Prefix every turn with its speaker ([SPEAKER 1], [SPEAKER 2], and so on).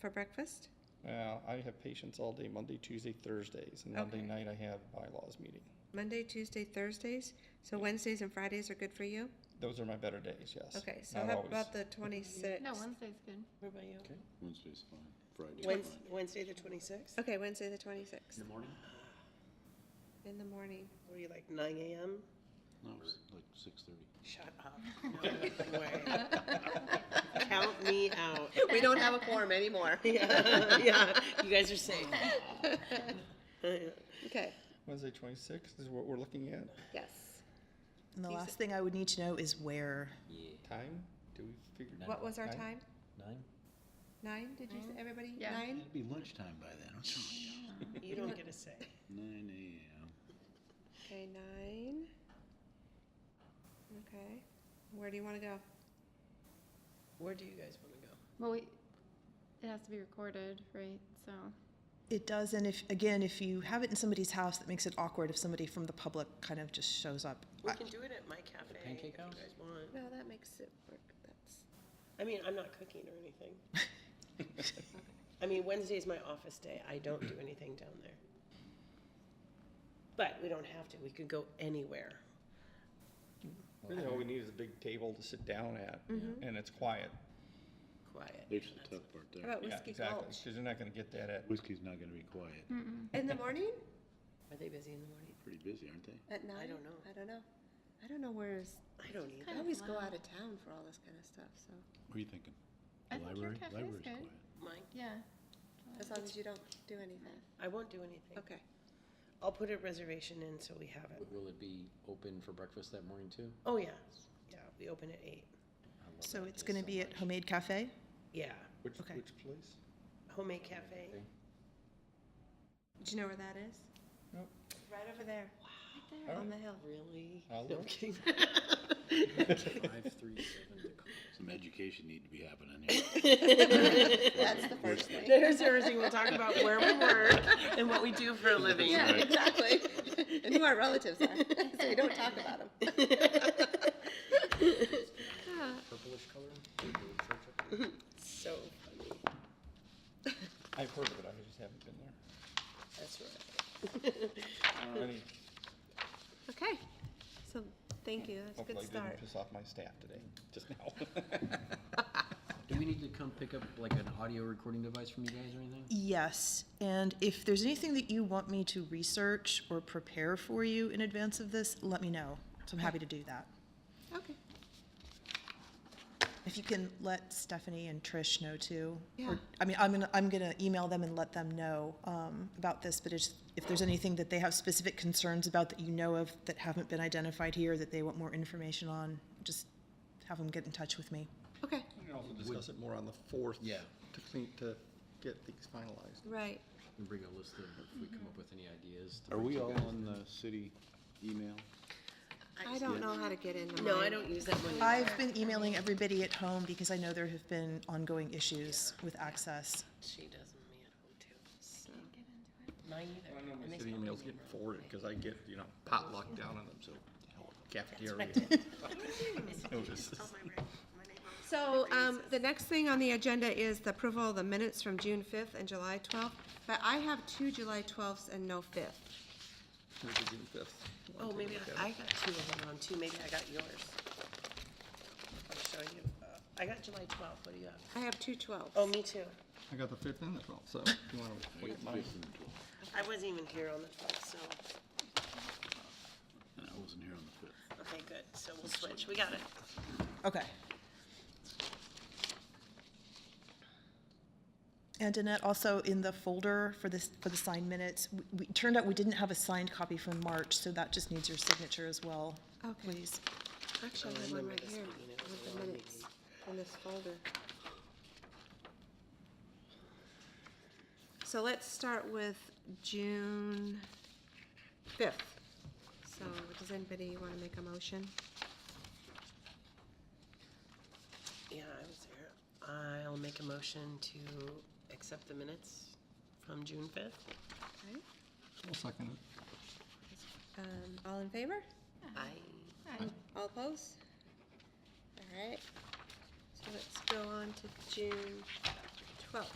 [SPEAKER 1] for breakfast?
[SPEAKER 2] Uh, I have patients all day, Monday, Tuesday, Thursdays, and Monday
[SPEAKER 1] Okay.
[SPEAKER 2] night I have bylaws meeting.
[SPEAKER 1] Monday, Tuesday, Thursdays? So Wednesdays and Fridays are good for you?
[SPEAKER 2] Those are my better days, yes.
[SPEAKER 1] Okay, so
[SPEAKER 2] Not
[SPEAKER 1] how
[SPEAKER 2] always.
[SPEAKER 1] about the twenty-sixth?
[SPEAKER 3] No, Wednesday's good.
[SPEAKER 4] Everybody else?
[SPEAKER 5] Wednesday's fine, Friday's fine.
[SPEAKER 4] Wednes- Wednesday, the twenty-sixth?
[SPEAKER 1] Okay, Wednesday, the twenty-sixth,
[SPEAKER 6] the morning?
[SPEAKER 1] in the morning.
[SPEAKER 4] What are you, like nine AM?
[SPEAKER 5] No, it's like six thirty.
[SPEAKER 4] Shut up. No way. Count me out.
[SPEAKER 1] We don't have a quorum anymore.
[SPEAKER 4] Yeah, yeah, you guys are safe.
[SPEAKER 1] Okay,
[SPEAKER 2] Wednesday, twenty-sixth is what we're looking at.
[SPEAKER 1] yes.
[SPEAKER 7] And the
[SPEAKER 1] These-
[SPEAKER 7] last thing I would need to know is where.
[SPEAKER 6] Yeah.
[SPEAKER 2] Time? Do we figure?
[SPEAKER 6] Nine.
[SPEAKER 1] What was our
[SPEAKER 2] Nine?
[SPEAKER 1] time?
[SPEAKER 6] Nine?
[SPEAKER 1] Nine, did you, say everybody?
[SPEAKER 3] Yeah.
[SPEAKER 1] Nine?
[SPEAKER 5] It'd be lunchtime by then, I'm telling
[SPEAKER 4] You don't get a say.
[SPEAKER 5] you. Nine AM.
[SPEAKER 1] Okay, nine. Okay, where do you wanna go?
[SPEAKER 4] Where do you guys wanna go?
[SPEAKER 3] Well, we, it has to be recorded, right? So,
[SPEAKER 7] It does, and if again, if you have it in somebody's house, that makes it awkward if somebody from the public kind of just shows up.
[SPEAKER 4] We
[SPEAKER 7] I-
[SPEAKER 4] can do it at my cafe if you
[SPEAKER 6] Pancake House?
[SPEAKER 4] guys want.
[SPEAKER 1] No, that makes it work, that's,
[SPEAKER 4] I mean, I'm not cooking or anything. I mean, Wednesday's my office day. I don't do anything down there. But we don't have to. We could go anywhere.
[SPEAKER 2] Really, all we need is a big table to sit down at,
[SPEAKER 1] Mm-hmm.
[SPEAKER 2] and it's quiet.
[SPEAKER 4] Quiet.
[SPEAKER 5] There's the tough part
[SPEAKER 1] how
[SPEAKER 5] there.
[SPEAKER 1] about
[SPEAKER 2] Yeah,
[SPEAKER 1] Whiskey
[SPEAKER 2] exactly,
[SPEAKER 1] Gulch?
[SPEAKER 2] because you're not gonna get that at,
[SPEAKER 5] Whiskey's not gonna be quiet.
[SPEAKER 1] In the morning?
[SPEAKER 4] Are they busy in the morning?
[SPEAKER 5] Pretty busy, aren't they?
[SPEAKER 1] At nine?
[SPEAKER 4] don't know.
[SPEAKER 1] I don't know. I don't know where's,
[SPEAKER 4] I don't either.
[SPEAKER 1] I always go out of town for all this kind of stuff, so,
[SPEAKER 5] What are you thinking?
[SPEAKER 3] I
[SPEAKER 5] The
[SPEAKER 3] think your
[SPEAKER 5] library?
[SPEAKER 3] cafe's
[SPEAKER 5] Library's
[SPEAKER 3] good.
[SPEAKER 5] quiet.
[SPEAKER 4] Mine.
[SPEAKER 3] yeah.
[SPEAKER 1] as long as you don't do anything.
[SPEAKER 4] I won't do anything.
[SPEAKER 1] Okay.
[SPEAKER 4] I'll put a reservation in so we have it.
[SPEAKER 6] Will it be open for breakfast that morning too?
[SPEAKER 4] Oh, yeah. Yeah, we open at eight.
[SPEAKER 6] I love
[SPEAKER 7] So
[SPEAKER 6] that place
[SPEAKER 7] it's going to
[SPEAKER 6] so
[SPEAKER 7] be at
[SPEAKER 6] much.
[SPEAKER 7] Homemade Cafe.
[SPEAKER 4] Yeah.
[SPEAKER 2] which,
[SPEAKER 7] Okay.
[SPEAKER 2] which place?
[SPEAKER 4] Homemade cafe.
[SPEAKER 1] Do you know where that is?
[SPEAKER 2] Nope. Oh.
[SPEAKER 1] Right over there,
[SPEAKER 2] All
[SPEAKER 1] on
[SPEAKER 2] right,
[SPEAKER 1] the hill.
[SPEAKER 4] Really?
[SPEAKER 2] I'll
[SPEAKER 4] No
[SPEAKER 2] look.
[SPEAKER 4] kidding.
[SPEAKER 6] Five, three, seven,
[SPEAKER 5] Some education need to be happening here.
[SPEAKER 1] That's the first thing.
[SPEAKER 4] There's everything. We'll talk about where we work and what we do for a living.
[SPEAKER 1] Yeah, exactly. And who our relatives are, so we don't talk about them.
[SPEAKER 6] purplish color? Big old church up there.
[SPEAKER 4] So funny.
[SPEAKER 2] I've heard of it, I just haven't been there.
[SPEAKER 4] That's right.
[SPEAKER 2] I mean,
[SPEAKER 1] Okay, so, thank you, that's a
[SPEAKER 2] Hopefully
[SPEAKER 1] good
[SPEAKER 2] I didn't
[SPEAKER 1] start.
[SPEAKER 2] piss off my staff today, just now.
[SPEAKER 6] Do we need to come pick up like an audio recording device from you guys or anything?
[SPEAKER 7] Yes, and if there's anything that you want me to research or prepare for you in advance of this, let me know. So I'm happy to do that.
[SPEAKER 1] Okay,
[SPEAKER 7] If you can let Stephanie and Trish know too.
[SPEAKER 1] Yeah.
[SPEAKER 7] Or, I mean, I'm gonna, I'm gonna email them and let them know, um, about this, but it's- if there's anything that they have specific concerns about that you know of that haven't been identified here, that they want more information on, just have them get in touch with me.
[SPEAKER 1] okay,
[SPEAKER 2] We can also discuss it more on the fourth.
[SPEAKER 6] Yeah.
[SPEAKER 2] To clean, to get things finalized.
[SPEAKER 1] right.
[SPEAKER 6] And bring a list of, if we come up with any ideas. to
[SPEAKER 5] Are
[SPEAKER 6] bring
[SPEAKER 5] we
[SPEAKER 6] to you
[SPEAKER 5] all
[SPEAKER 6] guys.
[SPEAKER 5] on the city email?
[SPEAKER 1] I don't know how to get into
[SPEAKER 4] No, I
[SPEAKER 1] mine.
[SPEAKER 4] don't use that one.
[SPEAKER 7] I've been emailing everybody at home because I know there have been ongoing issues with access.
[SPEAKER 4] She doesn't, me at home too. Mine either.
[SPEAKER 2] I know
[SPEAKER 4] And
[SPEAKER 2] my
[SPEAKER 4] they
[SPEAKER 2] city
[SPEAKER 4] spell
[SPEAKER 2] emails
[SPEAKER 4] my
[SPEAKER 2] get
[SPEAKER 4] name wrong.
[SPEAKER 2] forwarded, because I get, you know, potluck down on them, so cafeteria notices.
[SPEAKER 1] So, um, the next thing on the agenda is the approval of the minutes from June fifth and July twelfth, but I have two July twelfths and no fifth.
[SPEAKER 2] Which is June fifth.
[SPEAKER 4] Oh, maybe I I got two of them on too. Maybe I got yours. I'll show you. Uh, I got July twelfth. What do you have?
[SPEAKER 1] I have two twelfths.
[SPEAKER 4] Oh, me too.
[SPEAKER 2] I got the fifth and the twelfth, so if you wanna wait mine?
[SPEAKER 5] Fifth and twelfth.
[SPEAKER 4] I wasn't even here on the twelfth, so,
[SPEAKER 5] And I wasn't here on the fifth.
[SPEAKER 4] okay, good. So we'll switch. We got it.
[SPEAKER 7] Okay. And Annette, also in the folder for this, for the signed minutes, we- we, turned out we didn't have a signed copy from March, so that just needs your signature as well,
[SPEAKER 1] Okay.
[SPEAKER 7] please.
[SPEAKER 1] Actually, I have one right here with the minutes in this folder. So let's start with June fifth. So does anybody want to make a motion?
[SPEAKER 4] Yeah, I was there. I'll make a motion to accept the minutes from June fifth.
[SPEAKER 1] Okay.
[SPEAKER 2] I'll second it.
[SPEAKER 1] Um, all in favor?
[SPEAKER 4] I,
[SPEAKER 1] All opposed? All right. So let's go on to June